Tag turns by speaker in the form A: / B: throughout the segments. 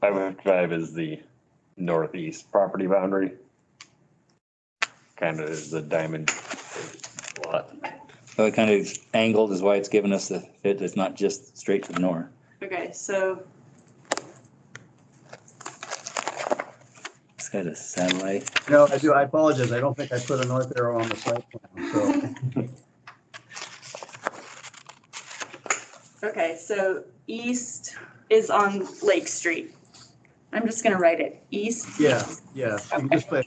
A: Five Drive is the northeast property boundary. Kind of is the diamond lot.
B: So it kind of is angled is why it's giving us the, it- it's not just straight to the north.
C: Okay, so
B: It's got a satellite.
D: No, I do, I apologize. I don't think I put a north arrow on the site plan, so.
C: Okay, so east is on Lake Street. I'm just gonna write it, east.
D: Yeah, yeah, you can just put,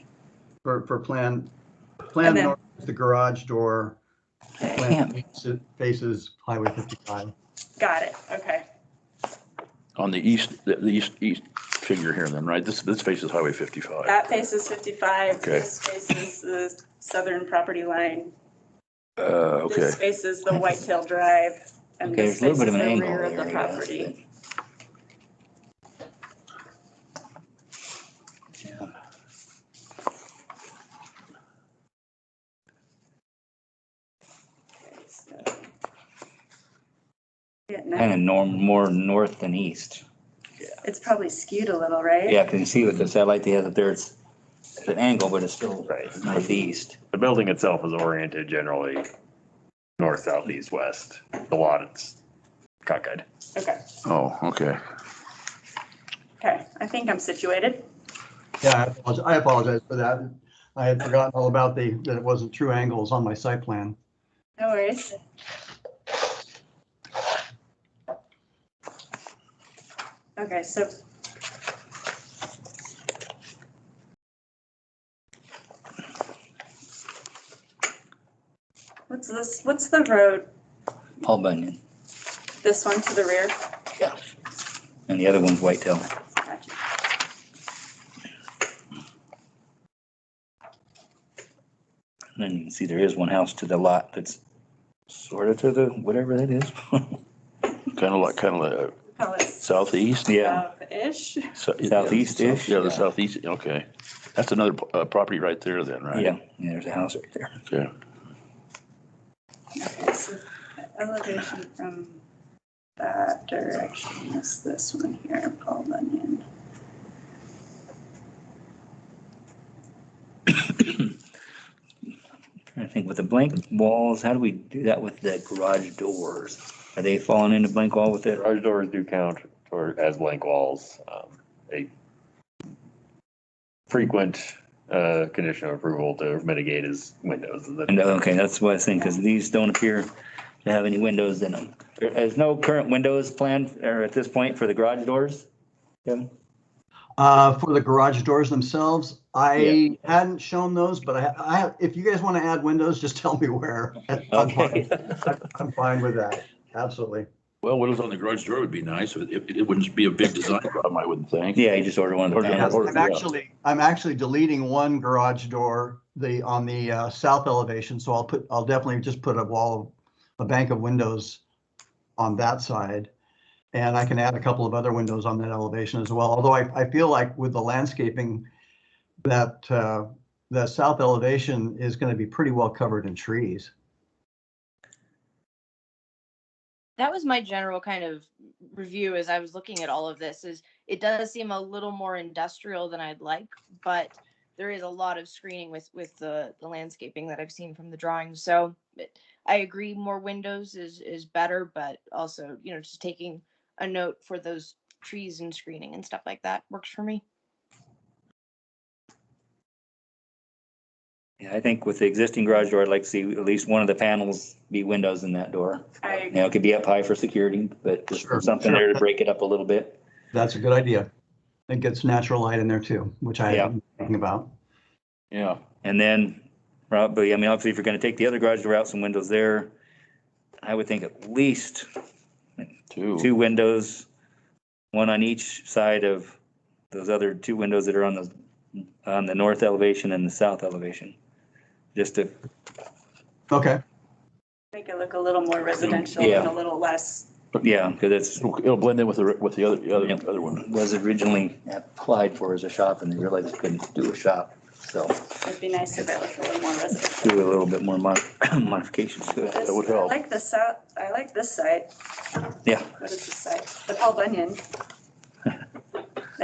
D: for, for plan, plan
C: And then-
D: north is the garage door.
B: Damn.
D: Plan east faces Highway 55.
C: Got it, okay.
E: On the east, the the east, east figure here then, right? This, this faces Highway 55.
C: That faces 55,
E: Okay.
C: this faces the southern property line.
E: Uh, okay.
C: This faces the Whitetail Drive.
B: Okay,
C: and
B: there's
C: this
B: a little bit of
C: faces
B: an
C: the
B: angle
C: rear of
B: there.
C: the
B: I guess,
C: property.
B: but- Yeah.
C: Okay, so- Yeah,
B: Kind
C: no,
B: of norm, more north than east.
C: It's probably skewed a little, right?
B: Yeah, because you see with the satellite they have up there, it's it's an angle, but it's still
A: Right.
B: northeast.
A: The building itself is oriented generally north, south, east, west. The lot it's cockeyed.
C: Okay,
E: Oh, okay.
C: okay, I think I'm situated.
D: Yeah, I apologize, I apologize for that. I had forgotten all about the, that it wasn't true angles on my site plan.
C: No worries. Okay, so. What's this, what's the road,
B: Paul Bunyan.
C: this one to the rear?
B: Yeah. And the other one's Whitetail.
C: Gotcha.
B: And then you can see there is one house to the lot that's sort of to the, whatever that is.
E: Kind of like, kind of like uh,
C: Call it
E: southeast?
B: Yeah.
C: South-ish,
E: So- yeah,
B: Southeast-ish?
E: Yeah, the southeast, okay. That's another uh, property right there then, right?
B: Yeah, yeah, there's a house right there.
E: Okay.
C: Okay, so elevation from that direction is this one here, Paul Bunyan.
B: I think with the blank walls, how do we do that with the garage doors? Are they falling into blank wall with it?
A: Garage doors do count toward, as blank walls. Um, A frequent, uh, condition of approval to mitigate is windows. and
B: And, uh,
A: then-
B: okay, that's what I was thinking, because these don't appear to have any windows in them. There- There's no current windows planned or at this point for the garage doors? Kevin?
D: Uh, for the garage doors themselves, I hadn't shown those, but I, I, if you guys want to add windows, just tell me where. I'm
B: Okay.
D: fine, I'm fine with that, absolutely.
E: Well, windows on the garage door would be nice. It, it it wouldn't be a big design problem, I wouldn't think.
B: Yeah, you just order one of the
E: Order
D: Yes,
B: panels.
E: order,
D: I'm
E: yeah.
D: actually, I'm actually deleting one garage door, the, on the uh, south elevation, so I'll put, I'll definitely just put a wall, a bank of windows on that side. And I can add a couple of other windows on that elevation as well, although I, I feel like with the landscaping, that, uh, the south elevation is going to be pretty well covered in trees.
F: that was my general kind of review as I was looking at all of this is it does seem a little more industrial than I'd like, but there is a lot of screening with with the the landscaping that I've seen from the drawings. So it- I agree more windows is is better, but also, you know, just taking a note for those trees and screening and stuff like that works for me.
B: Yeah, I think with the existing garage door, I'd like to see at least one of the panels be windows in that door.
C: I agree.
B: Now, it could be up high for security, but just
D: Sure,
B: something
D: sure.
B: there to break it up a little bit.
D: That's a good idea. It gets natural light in there too, which I
B: Yeah.
D: am thinking about.
E: Yeah.
B: And then probably, I mean, obviously, if you're gonna take the other garage door out, some windows there, I would think at least two windows, one on each side of those other two windows that are on the, on the north elevation and the south elevation. Just to,
D: Okay,
C: Make it look a little more residential and
B: Yeah.
C: a little less,
B: yeah, because it's,
E: It'll it'll blend in with the, re- with the other, the other,
B: Yeah.
E: other one.
B: was originally applied for as a shop and they realized they couldn't do a shop. So
C: it'd be nice if it looked a little more residential.
B: do a little bit more mod- modifications to it.
E: would
C: This- I
E: help.
C: like the south, I like this side.
B: Yeah.
C: What is this side? The Paul Bunyan.